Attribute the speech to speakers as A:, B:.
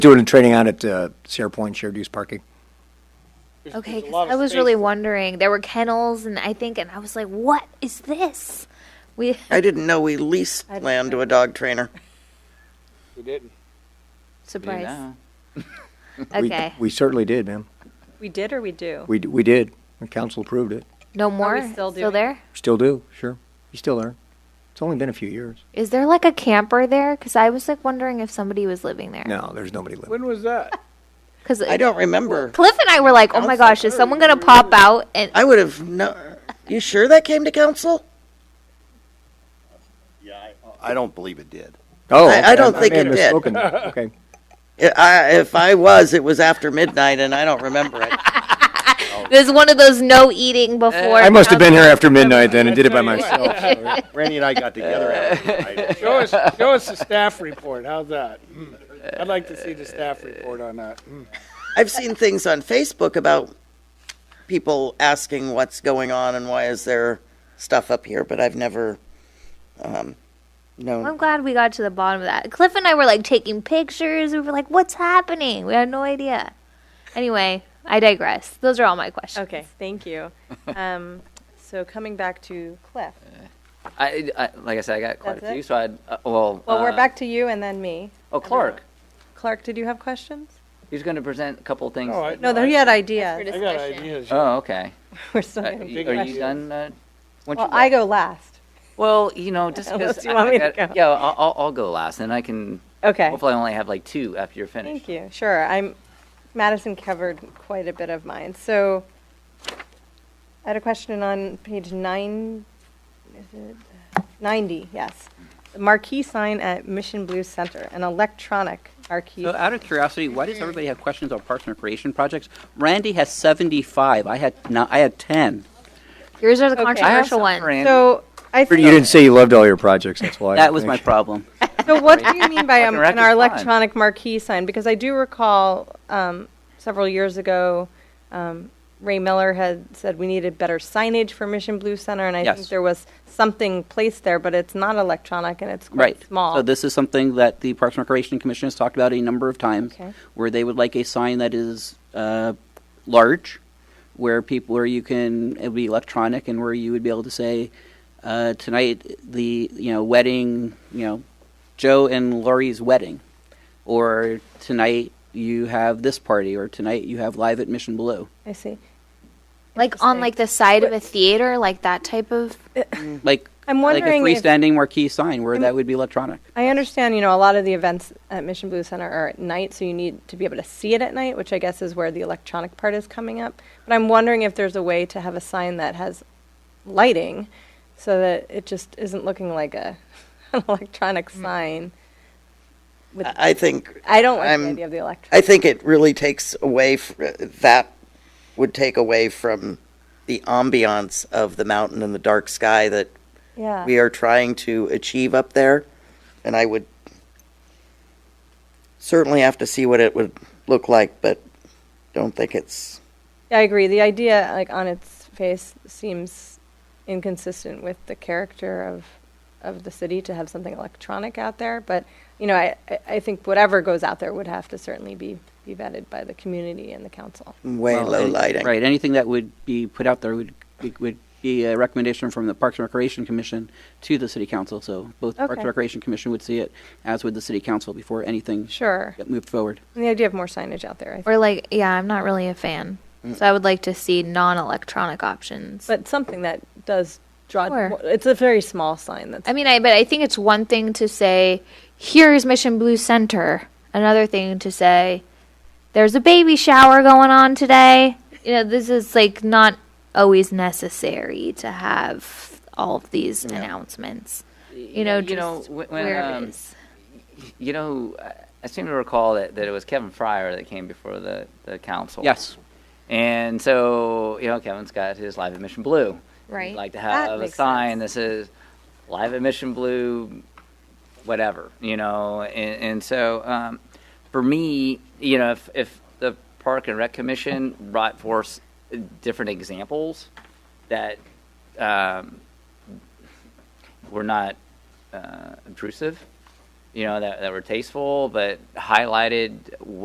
A: doing a training out at uh, Sierra Point Shared Use Parking.
B: There's-
C: Okay,
B: there's a
C: 'cause
B: lot of
C: I was
B: space
C: really
B: there.
C: wondering. There were kennels, and I think, and I was like, "What is this?" We
D: I didn't know we leased
E: I-
D: land to a dog trainer.
B: We didn't.
C: surprise.
F: Yeah.
A: We-
C: Okay,
A: We certainly did, ma'am.
E: We did or we do?
A: We, d- we did. The council approved it.
C: no more. still
E: still doing-
C: there?
A: Still do, sure. You still there. It's only been a few years.
C: Is there like a camper there? Because I was like wondering if somebody was living there.
A: No, there's nobody living.
B: When was that?
C: Because
D: I don't remember.
C: Cliff and I were like, "Oh my gosh, is someone gonna pop out?" And
D: I would have no. You sure that came to council?
G: I don't believe it did.
A: Oh,
D: I- I
A: okay.
D: don't think
A: may have
D: it did.
A: misspoken. Okay.
D: I- I, if I was, it was after midnight, and I don't remember it.
C: there's one of those no eating before.
A: I must have been here
C: council-
A: after midnight then and did it by
B: I tell you
A: myself. so-
G: Randy and I got together after the night.
B: Show us, show us the staff report. How's that? Mm. I'd like to see the staff report on that. Mm.
D: I've seen things on Facebook about people asking what's going on and why is there stuff up here, but I've never um,
C: I'm
D: known.
C: glad we got to the bottom of that. Cliff and I were like taking pictures. We were like, "What's happening?" We had no idea. Anyway, I digress. Those are all my questions.
E: Okay, thank you. Um, so coming back to Cliff.
F: I, I, like I said, I got quite
E: That's
F: a few,
E: it?
F: so I, uh, well.
E: Well, we're
F: uh,
E: back to you and then me.
F: Oh, Clark,
E: Clark, did you have questions?
F: he's going to present a couple things.
B: No, I-
E: No, there he had ideas.
B: I got ideas.
F: Oh, okay.
E: We're still
F: Uh,
E: gonna
F: y-
E: be.
B: big
F: Are
B: ideas.
F: you done? uh, once
E: Well,
F: you-
E: I go last.
F: Well, you know, just
E: Unless
F: because.
E: you want me to go.
F: Yeah, I'll, I'll- I'll go last, and I can,
E: Okay.
F: hopefully I only have like two after you're finished.
E: Thank you. Sure. I'm Madison covered quite a bit of mine. So I had a question on page nine. Is it 90? Yes. The marquee sign at Mission Blue Center, an electronic marquee.
H: So, out of curiosity, why does everybody have questions on parks and recreation projects? Randy has seventy-five. I had no, I had ten.
C: Yours are the
E: Okay.
F: I have
C: controversial
F: some
C: ones.
F: for Andy.
E: so I
A: You
E: think,
A: didn't say you loved all your projects, that's why.
H: That was my problem.
E: so what do you mean by um,
F: Fucking wreck
E: an our
F: is fine.
E: electronic marquee sign? Because I do recall um, several years ago, um, Ray Miller had said we needed better signage for Mission Blue Center, and I
H: Yes.
E: think there was something placed there, but it's not electronic and it's quite
H: Right.
E: small.
H: So this is something that the Parks and Recreation Commission has talked about a number of times,
E: Okay.
H: where they would like a sign that is uh, large, where people where you can it would be electronic and where you would be able to say uh, tonight the you know wedding you know Joe and Laurie's wedding, or tonight you have this party, or tonight you have live at Mission Blue.
E: I see.
C: like on like the side of a theater, like that type of.
H: like
E: Mm-hmm. I'm
H: like a
E: wondering if-
H: freestanding marquee sign where that would be electronic.
E: I understand, you know, a lot of the events at Mission Blue Center are at night, so you need to be able to see it at night, which I guess is where the electronic part is coming up. But I'm wondering if there's a way to have a sign that has lighting so that it just isn't looking like a an electronic sign. With I,
D: Hmm. I think
E: don't like the
D: I'm-
E: idea of the electronic.
D: I think it really takes away f- that would take away from the ambiance of the mountain and the dark sky that
E: yeah.
D: we are trying to achieve up there. And I would certainly have to see what it would look like, but don't think it's
E: Yeah, I agree. The idea, like on its face, seems inconsistent with the character of of the city to have something electronic out there. But you know, I, I- I think whatever goes out there would have to certainly be be vetted by the community and the council.
D: way
H: Well,
D: low
H: any-
D: lighting.
H: Right. Anything that would be put out there would be, would be a recommendation from the Parks and Recreation Commission to the City Council. So both Parks
E: Okay.
H: and Recreation Commission would see it, as would the City Council before anything
E: Sure.
H: got moved forward.
E: And the idea of more signage out there. I think.
C: Or like, yeah, I'm not really a fan, so I would like to see non-electronic options.
E: But something that does draw.
C: Sure.
E: It's a very small sign. That's
C: I mean, I but I think it's one thing to say, "Here's Mission Blue Center." Another thing to say, "There's a baby shower going on today." You know, this is like not always necessary to have all of these announcements. You know,
F: you know,
C: just
F: wh- when,
C: where
F: um,
C: it is.
F: You know, I- I seem to recall that, that it was Kevin Fryer that came before the, the council.
H: Yes.
F: And so, you know, Kevin's got his live at Mission Blue.
C: Right.
F: He'd like to
E: That
F: have a
E: makes
F: sign that says live at Mission Blue, whatever, you know. And, and so um, for me, you know, if, if the Park and Rec Commission brought forth different examples that um, were not uh, obtrusive, you know, that, that were tasteful, but highlighted